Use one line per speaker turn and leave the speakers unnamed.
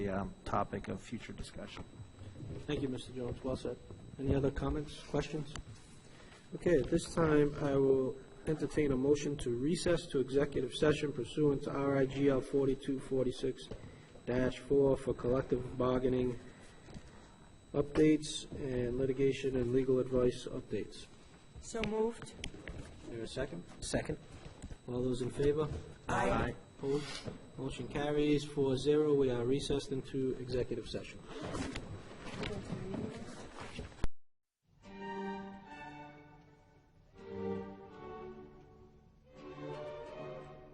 the um, topic of future discussion.
Thank you, Mr. Jones. Well said. Any other comments, questions? Okay, at this time, I will entertain a motion to recess to executive session pursuant to RIGL 4246-4 for collective bargaining updates and litigation and legal advice updates.
So moved.
Is there a second?
Second.
All those in favor?
Aye. Aye.
Opposed? Motion carries 4-0. We are recessed into executive session.